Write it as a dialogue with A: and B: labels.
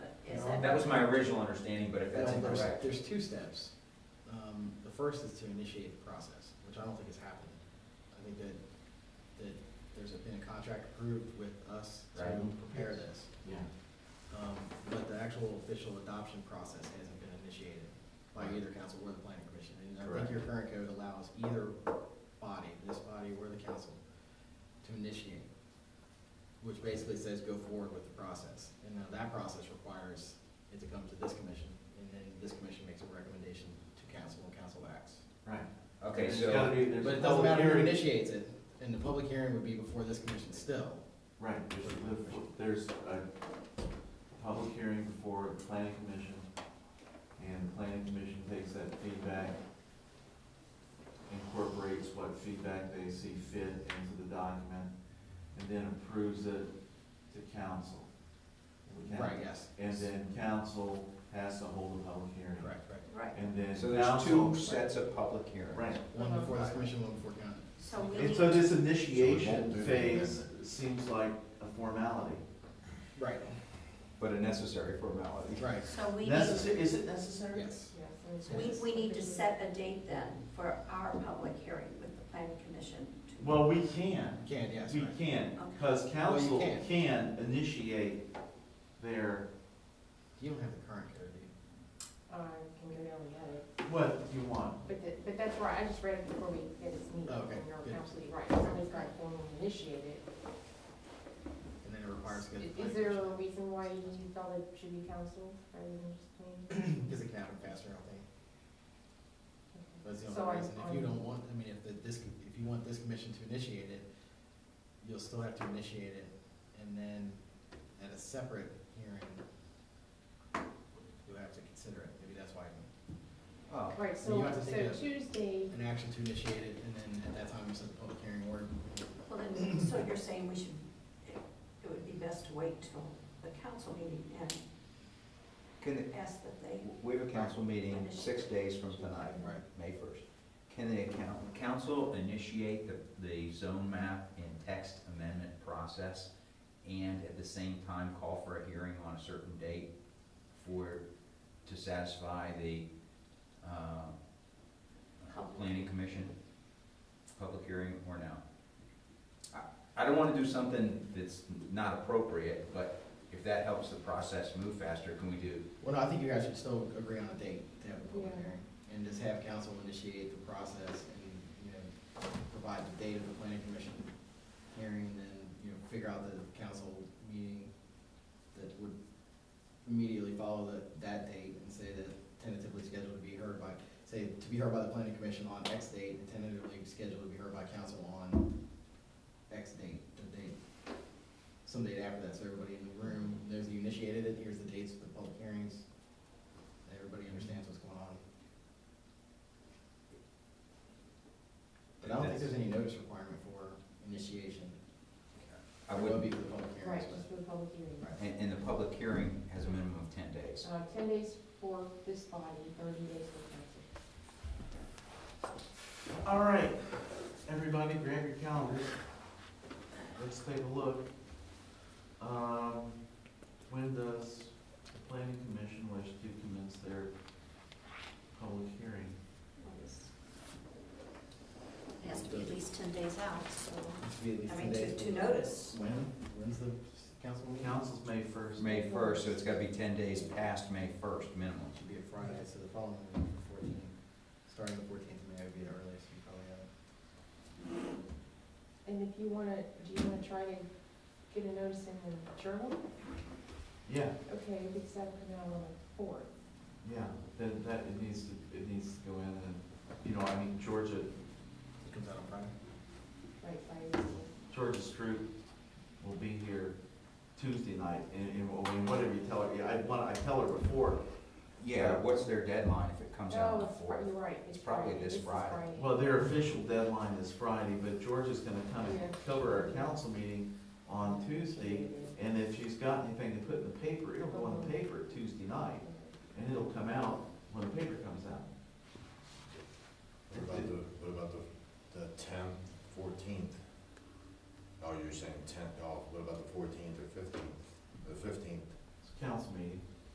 A: That was my original understanding, but if that's
B: No, there's-
A: incorrect.
B: There's two steps. Um, the first is to initiate the process, which I don't think has happened. I think that, that there's been a contract approved with us to
A: Right.
B: prepare this. Um, but the actual official adoption process hasn't been initiated by either council or the planning commission. And I think
A: Correct.
B: your current code allows either body, this body or the council, to initiate, which basically says go forward with the process. And now that process requires it to come to this commission, and then this commission makes a recommendation to council, and council acts.
C: Right.
A: Okay,
C: There's
A: so.
C: gotta be- there's
B: But
C: a
B: it doesn't
C: public
B: matter who
C: hearing.
B: initiates it, and the public hearing would be before this commission still.
C: Right, there's, the- there's a public hearing before the planning commission, and the planning commission takes that feedback, incorporates what feedback they see fit into the document, and then approves it to council. And the coun-
B: Right, yes.
C: And then council has to hold a public hearing.
B: Correct, right.
D: Right,
C: And then
A: So there's two
C: council.
A: sets of public hearings.
C: Right,
B: One before this commission, one before county.
D: so we
C: and
D: need,
C: so
D: to-
C: this initiation
E: do that.
C: phase seems like a formality.
B: Right,
A: But a necessary formality.
B: right,
D: so we need,
C: Necessary, is it necessary?
B: yes.
D: we, we need to set a date then for our public hearing with the planning commission. to-
C: Well, we can,
B: You can, yes,
C: we
B: right.
C: can,
D: Okay.
C: because council
B: Well, you can.
C: can initiate their,
B: You don't have the current code, do you?
F: I can barely have it,
C: what you want.
F: but the, but that's right, I just read it before we had this meeting,
B: Oh, okay,
F: and you're
B: good.
F: absolutely right, somebody's got to formally initiate it.
B: And then it requires to go to the
F: Is-
B: planning
F: Is there
B: commission.
F: a reason why you thought it should be council rather than just planning?
B: Because it can happen faster, I don't think. That's the
F: So um,
B: only
F: I'm-
B: reason. If you
F: I'm-
B: don't want, I mean, if the, this, if you want this commission to initiate it, you'll still have to initiate it. And then at a separate hearing, you'll have to consider it. Maybe that's why,
A: Oh,
F: Right,
B: You
F: so,
B: have to
F: so
B: think of-
F: Tuesday,
B: an action to initiate it, and then at that time, you set the public hearing or.
D: Well, then, so you're saying we should, it it would be best to wait till the council meeting and
A: Can, it-
D: ask that they,
A: we have a council meeting six days from tonight,
B: Right.
A: May first. Can the account- council initiate the, the zone map and text amendment process? And at the same time, call for a hearing on a certain date for, to satisfy the, uh,
D: Public.
A: planning commission, public hearing or no? I- I don't wanna do something that's not appropriate, but if that helps the process move faster, can we do?
B: Well, no, I think you guys should still agree on a date to have a public
F: Yeah.
B: hearing, and just have council initiate the process and, you know, provide the date of the planning commission hearing, and then, you know, figure out the council meeting that would immediately follow that, that date and say that tentatively scheduled to be heard by, say, to be heard by the planning commission on X date, and tentatively scheduled to be heard by council on X date, the date, some date after that, so everybody in the room, there's, you initiated it, here's the dates of the public hearings, Everybody understands what's going on. But I don't think there's any notice requirement for initiation.
A: I
B: There will
A: wouldn't
B: be for the public
F: right,
B: hearings,
F: just for the public hearing.
B: but, right.
A: And, and the public hearing has a minimum of ten days.
F: Uh, ten days for this body, thirty days for council.
C: All right, everybody grab your calendars, let's take a look. Um, when does the planning commission wish to commence their public hearing?
D: it has to be at least ten days out, so,
B: It's to be at least
D: I
B: 10
D: mean, to,
B: days
D: to notice.
B: before- When, when's the council meeting?
C: Council's May first.
A: May first, so it's gotta be ten days past May first minimum.
B: It should be a Friday, so the following week, the fourteenth, starting the fourteenth, May would be the earliest you probably have. it.
F: And if you wanna, do you wanna try to get a notice in the journal?
C: Yeah,
F: Okay, if it's that come out on the fourth,
C: yeah, then that, it needs to, it needs to go in and, you know, I mean, Georgia,
B: It comes out on Friday.
F: right, by the fourth.
C: Georgia Stroop will be here Tuesday night, and, and I mean, whatever you tell her, yeah, I want, I tell her before,
A: Yeah, what's their deadline if it comes out on
F: Oh,
A: the
F: it's, Fri-
A: fourth?
F: you're right.
A: It's probably this
F: is
A: Friday.
C: well, their official deadline is Friday, but Georgia's gonna kind
F: Yeah.
C: of cover our council meeting on Tuesday, and if she's got anything to put in the paper, it'll go in the paper Tuesday night, and it'll come out when the paper comes out.
E: What about the, what about the, the tenth, fourteenth? Oh, you're saying tenth, oh, what about the fourteenth or fifteenth? The fifteenth,
C: It's a council meeting,